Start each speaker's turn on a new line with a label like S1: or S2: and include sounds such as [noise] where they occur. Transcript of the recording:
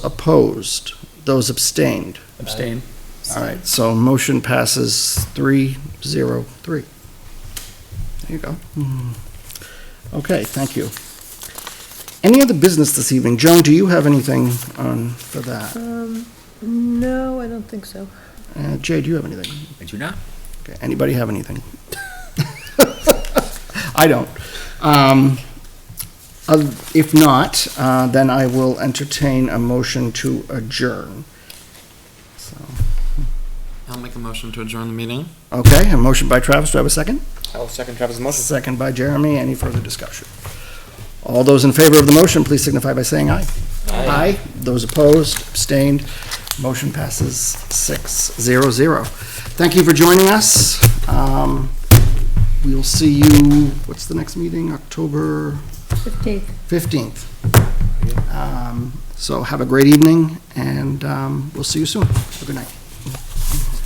S1: Opposed? Those abstained?
S2: Abstain.
S1: All right, so motion passes three, zero, three. There you go. Okay, thank you. Any other business this evening? Joan, do you have anything on for that?
S3: Um, no, I don't think so.
S1: Uh, Jay, do you have anything?
S2: I do not.
S1: Okay, Anybody have anything? [laughs] I don't. Um, oth- If not, uh, then I will entertain a motion to adjourn. So,
S4: I'll make a motion to adjourn the meeting.
S1: Okay, a motion by Travis, do I have a second?
S4: I'll second Travis' motion.
S1: Second by Jeremy. Any further discussion? All those in favor of the motion, please signify by saying aye. Aye. Those opposed, abstained, motion passes six zero zero. Thank you for joining us. Um, We'll see you, what's the next meeting? October
S3: Fifteenth.
S1: 15th. Um, So have a great evening, and um, we'll see you soon. Have a Good night.